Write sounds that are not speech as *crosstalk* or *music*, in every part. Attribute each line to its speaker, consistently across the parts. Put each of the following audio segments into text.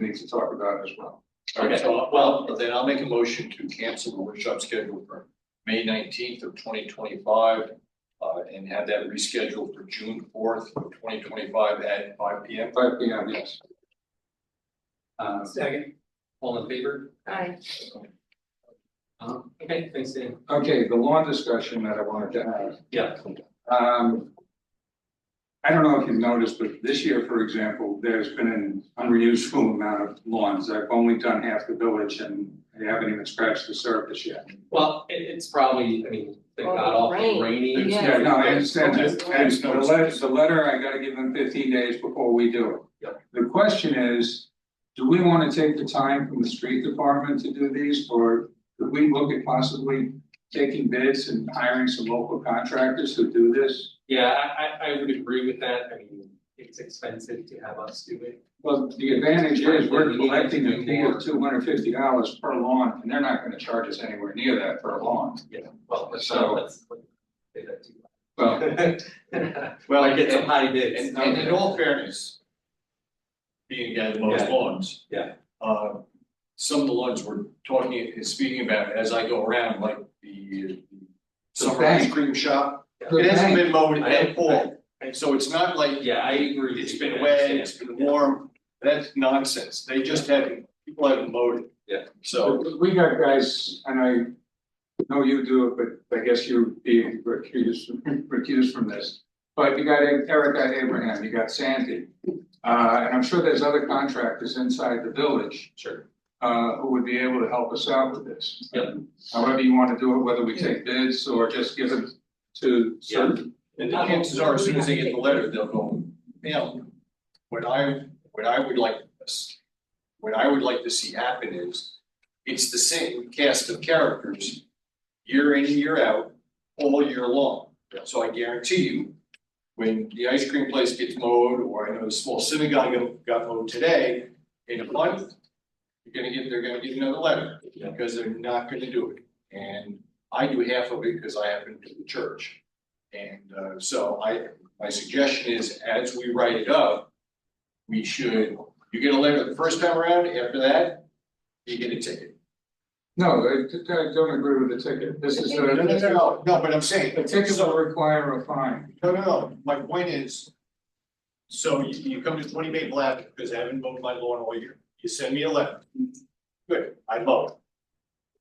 Speaker 1: we need to talk about as well.
Speaker 2: Okay, so, well, then I'll make a motion to cancel the workshop scheduled for May nineteenth of twenty twenty-five. Uh, and have that rescheduled for June fourth of twenty twenty-five at five P M.
Speaker 1: Five P M, yes.
Speaker 3: Uh, second, all in favor?
Speaker 4: Aye.
Speaker 3: Um, okay, thanks, Dan.
Speaker 1: Okay, the lawn discussion that I wanted to have.
Speaker 3: Yeah.
Speaker 1: Um. I don't know if you've noticed, but this year, for example, there's been an unreusable amount of lawns. I've only done half the village and I haven't even scratched the surface yet.
Speaker 3: Well, it, it's probably, I mean, thank
Speaker 4: Well,
Speaker 3: God, all
Speaker 4: rain.
Speaker 3: rainy.
Speaker 4: Yeah.
Speaker 1: Yeah, no, I understand
Speaker 2: There's-
Speaker 1: that, and
Speaker 2: there's
Speaker 1: the
Speaker 2: no-
Speaker 1: letter, the letter, I gotta give them fifteen days before we do it. The question is, do we wanna take the time from the street department to do these, or could we look at possibly taking bids and hiring some local contractors to do this?
Speaker 3: Yeah, I, I, I would agree with that, I mean, it's expensive to have us do it.
Speaker 1: Well, the advantage is, we're collecting a fee of two hundred fifty dollars per lawn, and they're not gonna charge us anywhere near that per lawn.
Speaker 3: Yeah, well, let's,
Speaker 1: So-
Speaker 3: let's. let's say that too.
Speaker 1: Well,
Speaker 3: *laughs*
Speaker 2: Well,
Speaker 3: Might get some high bids.
Speaker 2: And and in all fairness. Being a guy that mows
Speaker 3: Yeah.
Speaker 2: lawns.
Speaker 3: Yeah.
Speaker 2: Uh, some of the lawns we're talking, speaking about as I go around, like the. Summer ice
Speaker 1: bank.
Speaker 2: cream shop,
Speaker 1: The
Speaker 2: it hasn't
Speaker 1: bank.
Speaker 2: been mowed
Speaker 3: I-
Speaker 2: at all,
Speaker 3: I-
Speaker 2: so it's not like.
Speaker 3: Yeah, I agree.
Speaker 2: It's been
Speaker 3: I
Speaker 2: wet,
Speaker 3: understand.
Speaker 2: it's been warm, that's nonsense, they just haven't, people haven't mowed it.
Speaker 3: Yeah.
Speaker 2: So,
Speaker 1: We got guys, and I know you do it, but I guess you be recused, recused from this. But you got Eric, got Abraham, you got Sandy, uh, and I'm sure there's other contractors inside the village,
Speaker 3: Sure,
Speaker 1: uh, who would be able to help us out with this.
Speaker 3: Yep.
Speaker 1: However you wanna do it, whether we take bids or just give it to certain.
Speaker 2: and the chances are, as soon as they get the letter, they'll go, man, what I, what I would like, this- what I would like to see happen is, it's the same cast of characters, year in and year out, all year long. So I guarantee you, when the ice cream place gets mowed, or I know the small synagogue got- got mowed today, in a month, you're gonna get, they're gonna get another letter.
Speaker 3: Yeah.
Speaker 2: Because they're not gonna do it, and I do half of it because I happen to the church. And uh, so I, my suggestion is, as we write it up, we should, you get a letter the first time around, after that, you get a ticket.
Speaker 1: No, I, I don't agree with the ticket, this is,
Speaker 2: No, no, no,
Speaker 1: a
Speaker 2: no, no, but I'm saying,
Speaker 1: a ticket will require a fine.
Speaker 2: No, no, no, my point is. So you, you come to twenty Maple Avenue, because I haven't mowed my lawn all year, you send me a letter. Good, I mow it.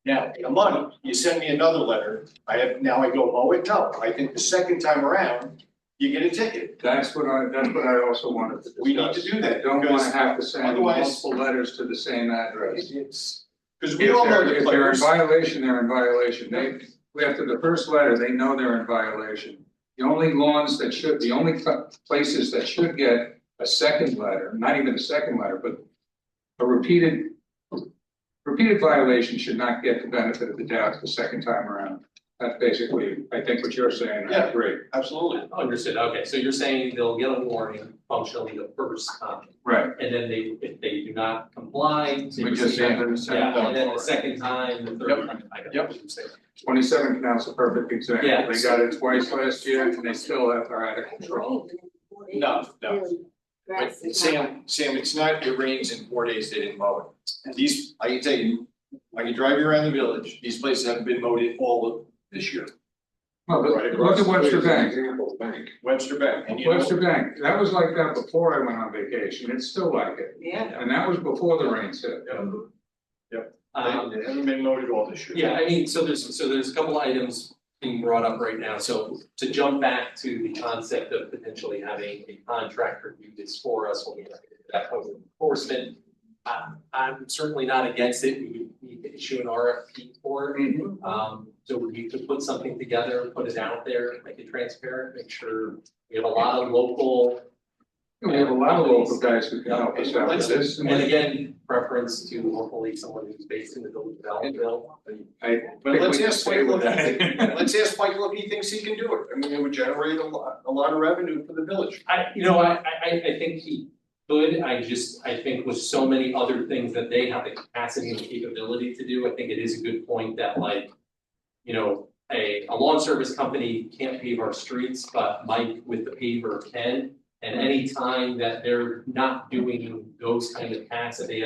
Speaker 2: Now, in a month, you send me another letter, I have, now I go mow it, no, I think the second time around, you get a ticket.
Speaker 1: That's what I, that's what I also wanted to discuss.
Speaker 2: We need to do that,
Speaker 1: I don't wanna
Speaker 2: because
Speaker 1: have to send
Speaker 2: otherwise-
Speaker 1: multiple letters to the same address.
Speaker 2: It's, because
Speaker 1: If
Speaker 2: we all know
Speaker 1: they're, if
Speaker 2: the
Speaker 1: they're in
Speaker 2: players,
Speaker 1: violation, they're in violation, they, after the first letter, they know they're in violation. The only lawns that should, the only cl- places that should get a second letter, not even a second letter, but a repeated. Repeated violation should not get the benefit of the doubt the second time around, that's basically, I think what you're saying, I
Speaker 2: Yeah.
Speaker 1: agree,
Speaker 2: absolutely,
Speaker 3: understood, okay, so you're saying they'll get a warning functionally the first time,
Speaker 1: right,
Speaker 3: and then they, if they do not comply, they
Speaker 1: we just
Speaker 3: receive
Speaker 1: send them a second letter.
Speaker 3: Yeah, and then the second time, the
Speaker 2: Yep.
Speaker 3: third time, I got
Speaker 2: Yep.
Speaker 3: what you're saying.
Speaker 1: Twenty-seven canal's a perfect example,
Speaker 3: Yeah.
Speaker 1: they got it twice last year and they still have are out of control.
Speaker 2: no, no. But Sam, Sam, it's not, it rains in four days, they didn't mow it. These, I can tell you, I can drive you around the village, these places haven't been mowed at all of this year.
Speaker 1: Well,
Speaker 2: Right
Speaker 1: look, look
Speaker 2: across
Speaker 1: at
Speaker 2: the
Speaker 1: Webster
Speaker 2: street.
Speaker 1: Bank,
Speaker 5: bank.
Speaker 2: Webster Bank, and you know.
Speaker 1: Webster Bank, that was like that before I went on vacation, it's still like it,
Speaker 4: Yeah.
Speaker 1: and that was before the rains hit.
Speaker 3: Um,
Speaker 2: They they haven't been mowed at all this year.
Speaker 3: Yeah, I mean, so there's, so there's a couple items being brought up right now, so to jump back to the concept of potentially having a contractor do this for us when we have that code of enforcement. I, I'm certainly not against it, we would need to issue an RFP for it, um, so we could put something together, put it out there, make it transparent, make sure we have a lot of local.
Speaker 1: We have a lot of local guys who can help us out with this,
Speaker 3: And
Speaker 1: and
Speaker 3: again, preference to hopefully someone who's based in the village of Allenville, but
Speaker 1: I
Speaker 2: But
Speaker 1: think
Speaker 2: let's
Speaker 1: we can
Speaker 2: ask
Speaker 1: stay
Speaker 2: Michael,
Speaker 1: with *laughs*
Speaker 2: if he-
Speaker 1: that.
Speaker 2: let's ask Michael if he thinks he can do it, I mean, it would generate a lot, a lot of revenue for the village.
Speaker 3: I, you know, I, I, I I think he could, I just, I think with so many other things that they have the capacity and capability to do, I think it is a good point that like, you know, a, a lawn service company can't pave our streets, but Mike with the paver can. And any time that they're not doing those kind of tasks that they have